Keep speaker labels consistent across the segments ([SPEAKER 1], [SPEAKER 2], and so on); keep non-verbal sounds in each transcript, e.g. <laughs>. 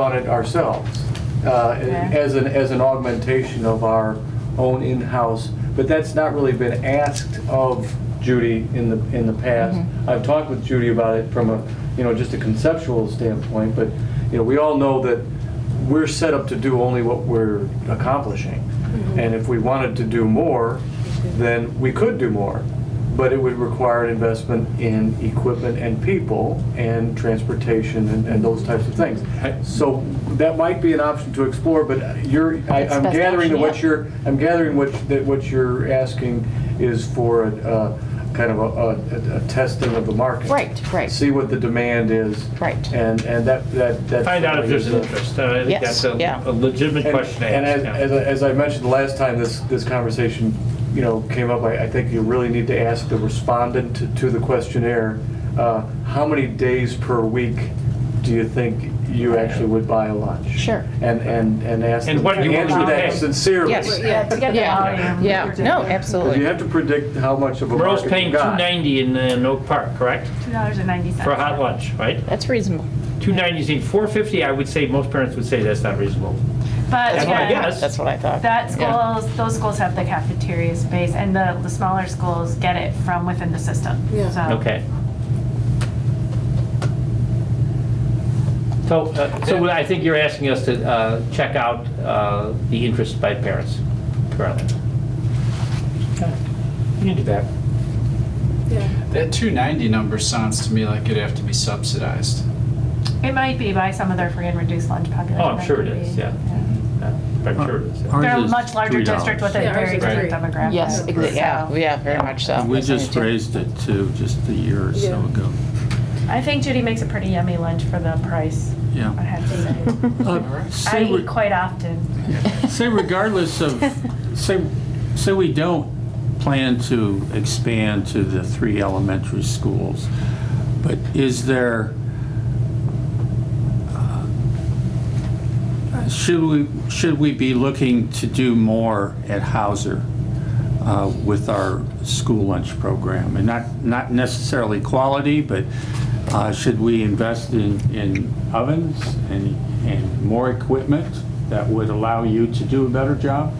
[SPEAKER 1] on it ourselves uh,
[SPEAKER 2] Okay.
[SPEAKER 1] as an, as an augmentation of our own in-house, but that's not really been asked of Judy in the, in the past. I've talked with Judy about it from a, you know, just a conceptual standpoint, but, you know, we all know that we're set up to do only what we're accomplishing. And if we wanted to do more, then we could do more, but it would require an investment in equipment and people and transportation and, and those types of things. So that might be an option to explore, but you're, I,
[SPEAKER 2] That's
[SPEAKER 1] I'm
[SPEAKER 2] best
[SPEAKER 1] gathering that
[SPEAKER 2] option,
[SPEAKER 1] what
[SPEAKER 2] yep.
[SPEAKER 1] you're, I'm gathering what, that what you're asking is for a, uh, kind of a, a, a testing of the market.
[SPEAKER 2] Right, right.
[SPEAKER 1] See what the demand is.
[SPEAKER 2] Right.
[SPEAKER 1] And, and that, that, that.
[SPEAKER 3] Find out if there's an
[SPEAKER 1] certainly is a-
[SPEAKER 3] interest. Uh, I think
[SPEAKER 2] Yes,
[SPEAKER 3] that's a
[SPEAKER 2] yeah.
[SPEAKER 3] a legitimate
[SPEAKER 1] and-
[SPEAKER 3] question to
[SPEAKER 1] And as,
[SPEAKER 3] ask. yeah.
[SPEAKER 1] as I- as I mentioned the last time this, this conversation, you know, came up, I, I think you really need to ask the respondent to- to the questionnaire, uh, how many days per week do you think you actually would buy a lunch?
[SPEAKER 2] Sure.
[SPEAKER 1] And, and, and ask
[SPEAKER 3] And
[SPEAKER 1] them
[SPEAKER 3] what
[SPEAKER 1] to
[SPEAKER 3] you want
[SPEAKER 1] answer
[SPEAKER 3] to
[SPEAKER 1] that
[SPEAKER 3] pay.
[SPEAKER 1] sincerely.
[SPEAKER 2] Yes.
[SPEAKER 4] Yeah, to get the
[SPEAKER 2] Yeah.
[SPEAKER 4] volume.
[SPEAKER 2] Yeah, no,
[SPEAKER 1] Because you
[SPEAKER 2] absolutely.
[SPEAKER 1] have to predict how much of a
[SPEAKER 3] Merle's
[SPEAKER 1] market
[SPEAKER 3] paying
[SPEAKER 1] you got.
[SPEAKER 3] 290 in uh, in Oak Park, correct?
[SPEAKER 4] Two dollars and ninety cents.
[SPEAKER 3] For a hot lunch, right?
[SPEAKER 2] That's reasonable.
[SPEAKER 3] 290 is in 450, I would say, most parents would say that's not reasonable.
[SPEAKER 4] But
[SPEAKER 3] That's what I
[SPEAKER 4] yeah,
[SPEAKER 3] guess.
[SPEAKER 2] That's what I thought.
[SPEAKER 4] that
[SPEAKER 3] Yeah.
[SPEAKER 4] schools, those schools have the cafeteria space and the, the smaller schools get it from within the system.
[SPEAKER 5] Yeah.
[SPEAKER 2] Oh.
[SPEAKER 4] So-
[SPEAKER 3] Okay. So, uh, so I think you're asking us to uh, check out uh, the interest by parents currently. Okay. You can do that.
[SPEAKER 5] Yeah.
[SPEAKER 6] That 290 number sounds to me like it'd have to be subsidized.
[SPEAKER 4] It might be by some of their free and reduced lunch population.
[SPEAKER 3] Oh, I'm sure it
[SPEAKER 4] That could
[SPEAKER 3] is,
[SPEAKER 4] be,
[SPEAKER 3] yeah. Yeah, I'm sure it is. yeah.
[SPEAKER 4] They're a
[SPEAKER 7] Ours is
[SPEAKER 4] much larger
[SPEAKER 7] $3.
[SPEAKER 4] district with a
[SPEAKER 5] Yeah, ours
[SPEAKER 4] very
[SPEAKER 5] is three.
[SPEAKER 4] different demographic.
[SPEAKER 2] Yes, exa- yeah,
[SPEAKER 4] So-
[SPEAKER 2] yeah, very much so.
[SPEAKER 7] We
[SPEAKER 2] Uh, That's what I
[SPEAKER 7] just
[SPEAKER 2] did.
[SPEAKER 7] raised it too, just a year or so
[SPEAKER 5] Yeah.
[SPEAKER 7] ago.
[SPEAKER 4] I think Judy makes a pretty yummy lunch for the price, I
[SPEAKER 7] Yeah.
[SPEAKER 4] have to say. I
[SPEAKER 7] Uh, Say
[SPEAKER 4] eat <laughs>
[SPEAKER 7] re-
[SPEAKER 4] quite often.
[SPEAKER 7] say regardless of, say, say we don't plan to expand to the three elementary schools, but is there, uh, should we, should we be looking to do more at Hauser? uh, with our school lunch program. And not, not necessarily quality, but uh, should we invest in, in ovens and, and more equipment that would allow you to do a better job?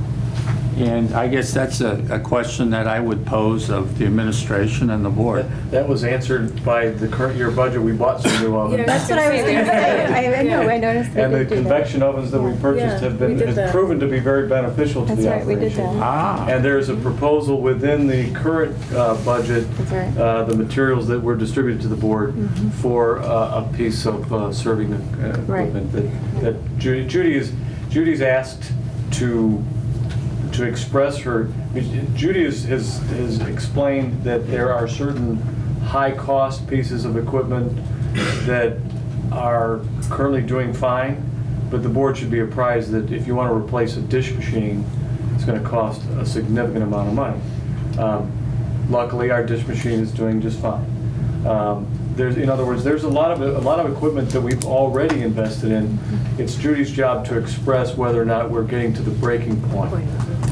[SPEAKER 7] And I guess that's a, a question that I would pose of the administration and the board.
[SPEAKER 1] That- That was answered by the current year budget, we bought some new ovens.
[SPEAKER 5] Yeah.
[SPEAKER 8] Oh, That's what I was going to say. <laughs> I I know, I noticed they
[SPEAKER 1] And the
[SPEAKER 8] did do that.
[SPEAKER 1] convection ovens that we purchased
[SPEAKER 5] Yeah,
[SPEAKER 1] have
[SPEAKER 5] we
[SPEAKER 1] been,
[SPEAKER 5] did
[SPEAKER 1] has
[SPEAKER 5] that.
[SPEAKER 1] proven to be very beneficial to
[SPEAKER 8] That's
[SPEAKER 1] the
[SPEAKER 8] right, we
[SPEAKER 1] operation.
[SPEAKER 8] did that.
[SPEAKER 7] Ah,
[SPEAKER 1] And there's a proposal within the current uh, budget,
[SPEAKER 8] That's right. Mm-hmm.
[SPEAKER 1] uh, the materials that were distributed to the board for uh, a piece of uh, serving uh,
[SPEAKER 8] Right.
[SPEAKER 1] equipment that- that Judy Judy is, Judy's asked to, to express her, Judy has, has has explained that there are certain high-cost pieces of equipment that are currently doing fine, but the board should be apprised that if you want to replace a dish machine, it's going to cost a significant amount of money. Um, Luckily, our dish machine is doing just fine. Um, There's, in other words, there's a lot of, a lot of equipment that we've already invested in. It's Judy's job to express whether or not we're getting to the breaking point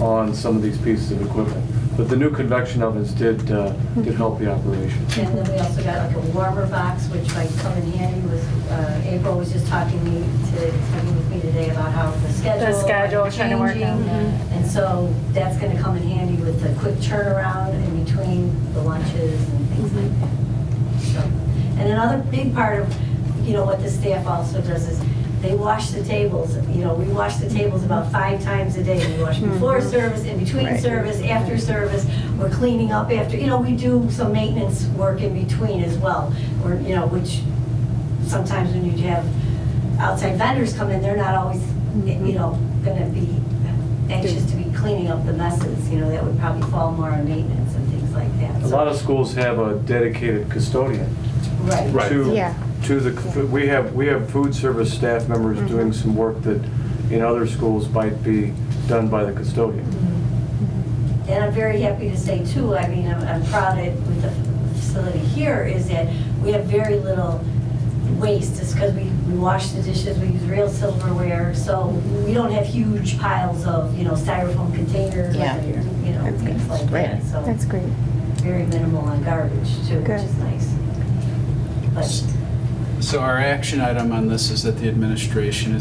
[SPEAKER 1] on some of these pieces of equipment. But the new convection ovens did, uh, did help the operation.
[SPEAKER 9] And then we also got like a warmer box, which might come in handy with, uh, April was just talking me to, talking with me today about how the schedule.
[SPEAKER 4] The schedule, trying to work
[SPEAKER 9] changing.
[SPEAKER 4] out.
[SPEAKER 9] And so that's gonna come in handy with the quick turnaround in between the lunches and things like that. So, And another big part of, you know, what the staff also does is they wash the tables. You know, we wash the tables about five times a day. We wash
[SPEAKER 4] Mm-hmm.
[SPEAKER 9] before service, in between
[SPEAKER 8] Right.
[SPEAKER 9] service, after service. We're cleaning up after, you know, we do some maintenance work in between as well. Or, you know, which sometimes when you have outside vendors come in, they're not always, you know, gonna be anxious to be cleaning up the messes, you know, that would probably fall more on maintenance and things like that.
[SPEAKER 1] A lot of schools have a dedicated custodian
[SPEAKER 9] Right.
[SPEAKER 3] Right.
[SPEAKER 1] to,
[SPEAKER 8] Yeah.
[SPEAKER 1] to the, we have, we have food service staff members doing some work that in other schools might be done by the custodian.
[SPEAKER 9] And I'm very happy to say too, I mean, I'm, I'm proud that with the facility here is that we have very little waste. It's because we, we wash the dishes, we use real silverware, so we don't have huge piles of, you know, styrofoam containers.
[SPEAKER 2] Yeah.
[SPEAKER 9] and, You know,
[SPEAKER 8] That's good.
[SPEAKER 9] things like
[SPEAKER 2] Great.
[SPEAKER 9] that, so.
[SPEAKER 8] That's great.
[SPEAKER 9] Very minimal on garbage too, which
[SPEAKER 8] Good.
[SPEAKER 9] is nice. But
[SPEAKER 6] So our action item on this is that the administration is